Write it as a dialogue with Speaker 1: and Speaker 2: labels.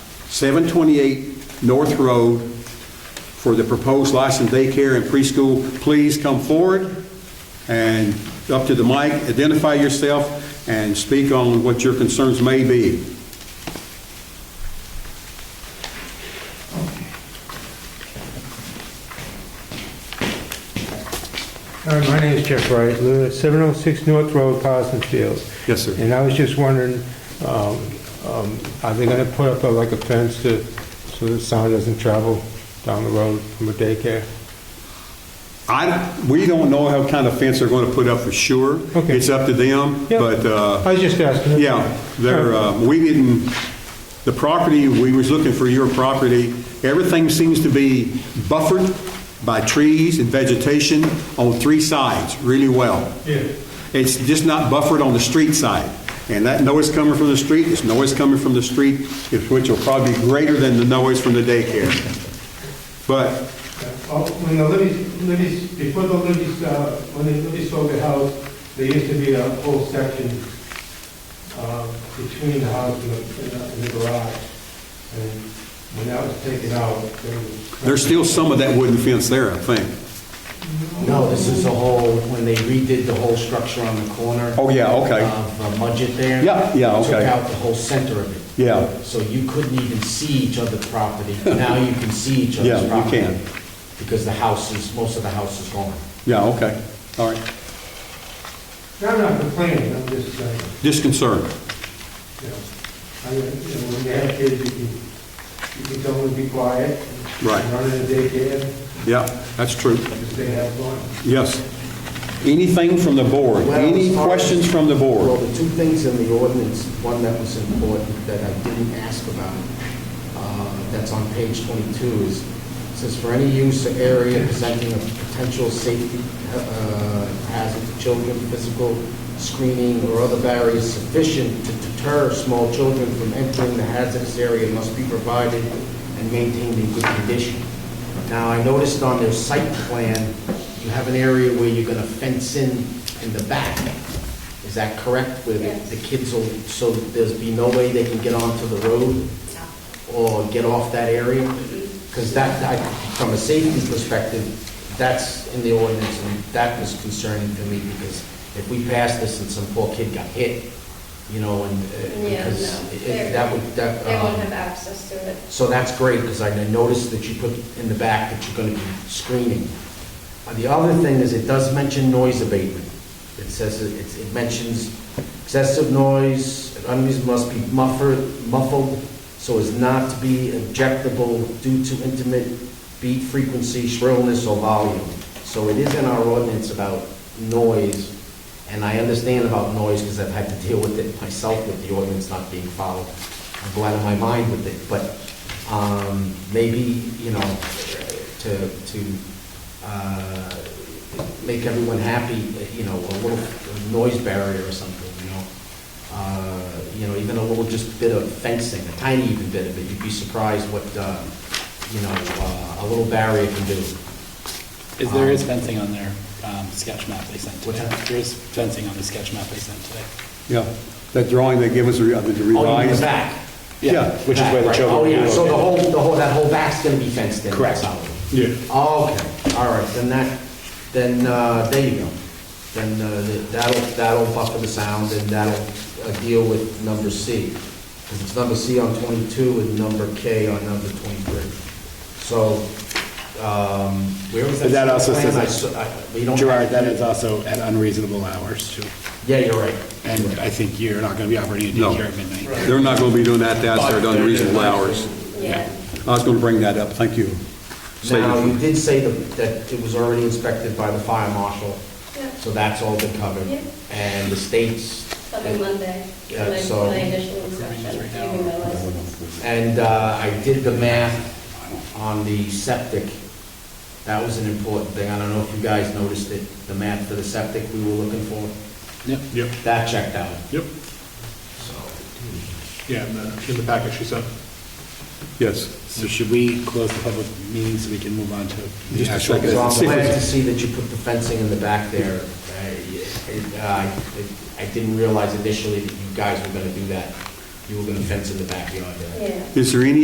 Speaker 1: 728 North Road for the proposed licensed daycare and preschool. Please come forward and up to the mic, identify yourself, and speak on what your concerns may be.
Speaker 2: All right, Uh, my name is Jeff Wright, live at 706 North Road, Parsons Field.
Speaker 1: Yes, sir.
Speaker 2: And I was just wondering, um, um, are they going to put up a- like a fence to, so the sound doesn't travel down the road from a daycare?
Speaker 1: I, we don't know how kind of fence they're going to put up for sure.
Speaker 2: Okay.
Speaker 1: It's up to them,
Speaker 2: Yeah.
Speaker 1: but, uh,
Speaker 2: I was just asking.
Speaker 1: yeah, they're, uh, we didn't, the property, we was looking for your property, everything seems to be buffered by trees and vegetation on three sides really well.
Speaker 2: Yeah.
Speaker 1: It's just not buffered on the street side. And that noise coming from the street, this noise coming from the street, is- which will probably be greater than the noise from the daycare. But
Speaker 2: Oh, When the Libby's, Libby's, before the Libby's, uh, when the Libby sold the house, there used to be a whole section uh, between the house and the- and the and the garage. And when that was taken out, there was...
Speaker 1: there's still some of that wooden fence there, I think.
Speaker 3: No, this is the whole, when they redid the whole structure on the corner.
Speaker 1: Oh, yeah, okay.
Speaker 3: Of uh, Mudgett there.
Speaker 1: Yeah, yeah,
Speaker 3: Took
Speaker 1: okay.
Speaker 3: out the whole center of it.
Speaker 1: Yeah.
Speaker 3: So you couldn't even see each other's property. Now you can see each
Speaker 1: Yeah,
Speaker 3: other's
Speaker 1: you
Speaker 3: property.
Speaker 1: can.
Speaker 3: Because the house is, most of the house is gone.
Speaker 1: Yeah, okay, all right.
Speaker 2: I'm not complaining, I'm just saying.
Speaker 1: Just concern.
Speaker 2: you know, I mean, you know, when you have kids, you can, you can tell them to be quiet.
Speaker 1: Right.
Speaker 2: Run in the daycare,
Speaker 1: Yeah, that's true.
Speaker 2: just they have fun.
Speaker 1: Yes. Anything from the board?
Speaker 3: Well, as
Speaker 1: Any
Speaker 3: far as-
Speaker 1: questions from the
Speaker 3: Well,
Speaker 1: board?
Speaker 3: the two things in the ordinance, one that was important that I didn't ask about, uh, that's on page 22, is, says for any use or area presenting a potential safety uh, hazard to children, physical screening or other barriers sufficient to deter small children from entering the hazardous area must be provided and maintained in good condition. Now, I noticed on their site plan, you have an area where you're going to fence in in the back. Is that correct? Where
Speaker 4: Yes.
Speaker 3: the the kids will, so there's be no way they can get onto the road or get off that area? Because that, I- from a safety perspective, that's in the ordinance, and that was concerning to me, because if we passed this and some poor kid got hit, you know, and, uh,
Speaker 4: Yeah,
Speaker 3: because
Speaker 4: no.
Speaker 3: it-
Speaker 4: They're-
Speaker 3: it- that would, that...
Speaker 4: They won't
Speaker 3: um,
Speaker 4: have access to it.
Speaker 3: so that's great, because I noticed that you put in the back that you're going to be screening. Uh, The other thing is, it does mention noise abatement. It says, it- it it mentions excessive noise, unreasonable must be muffled, muffled so as not to be objectable due to intimate beat frequency, shrillness, or volume. So it is in our ordinance about noise, and I understand about noise because I've had to deal with it myself with the ordinance not being followed. I'm glad of my mind with it, but um, maybe, you know, to, to uh, make everyone happy, you know, a little noise barrier or something, you know? Uh, You know, even a little just bit of fencing, a tiny even bit of it, you'd be surprised what, uh, you know, uh, a little barrier can do.
Speaker 5: Is there is fencing on their um, sketch map they sent
Speaker 3: What's
Speaker 5: today?
Speaker 3: that?
Speaker 5: There is fencing on the sketch map they sent today.
Speaker 1: Yeah, that drawing they give us, uh, the revised.
Speaker 3: Oh, you mean the back?
Speaker 1: Yeah.
Speaker 5: Which is where the
Speaker 3: Right,
Speaker 5: children
Speaker 3: Oh,
Speaker 5: will be
Speaker 3: yeah, so the
Speaker 5: located.
Speaker 3: whole, the whole, that whole back's gonna be fenced in.
Speaker 5: Correct.
Speaker 3: Yeah. Okay, all right, then that, then, uh, there you go. Then uh, the- that'll, that'll buffer the sound and that'll uh, deal with number C. Because it's number C on 22 and number K on number 23. So, um, where was that?
Speaker 5: But that also
Speaker 3: plan?
Speaker 5: says
Speaker 3: I
Speaker 5: that-
Speaker 3: saw- I- we don't have-
Speaker 5: Gerard, that is also at unreasonable hours too.
Speaker 3: Yeah, you're right.
Speaker 5: And I think you're not going to be operating a
Speaker 1: No.
Speaker 5: daycare at midnight.
Speaker 1: They're not going to be doing that, that's their unreasonable hours.
Speaker 4: Yeah.
Speaker 1: I was going to bring that up, thank you. Save it
Speaker 3: Now,
Speaker 1: for-
Speaker 3: you did say that, that it was already inspected by the fire marshal,
Speaker 4: Yeah.
Speaker 3: so that's all been covered.
Speaker 4: Yeah.
Speaker 3: And the states,
Speaker 4: Coming Monday,
Speaker 3: Yeah,
Speaker 4: my
Speaker 3: so-
Speaker 4: my initial inspection, giving my license.
Speaker 3: and uh, I did the math on the septic. That was an important thing. I don't know if you guys noticed it, the math for the septic we were looking for.
Speaker 5: Yep.
Speaker 6: Yep,
Speaker 3: That checked out,
Speaker 6: yep,
Speaker 3: so.
Speaker 6: yeah, in the, in the package she sent.
Speaker 1: Yes,
Speaker 5: So should we close the public meeting so we can move on to the
Speaker 1: Just a
Speaker 5: actual
Speaker 1: second.
Speaker 3: So
Speaker 5: business?
Speaker 3: I'm
Speaker 1: See if
Speaker 3: glad
Speaker 1: it's-
Speaker 3: to see that you put the fencing in the back there. I- it- I I didn't realize initially that you guys were gonna do that. You were gonna fence in the backyard there.
Speaker 4: Yeah.
Speaker 1: is there any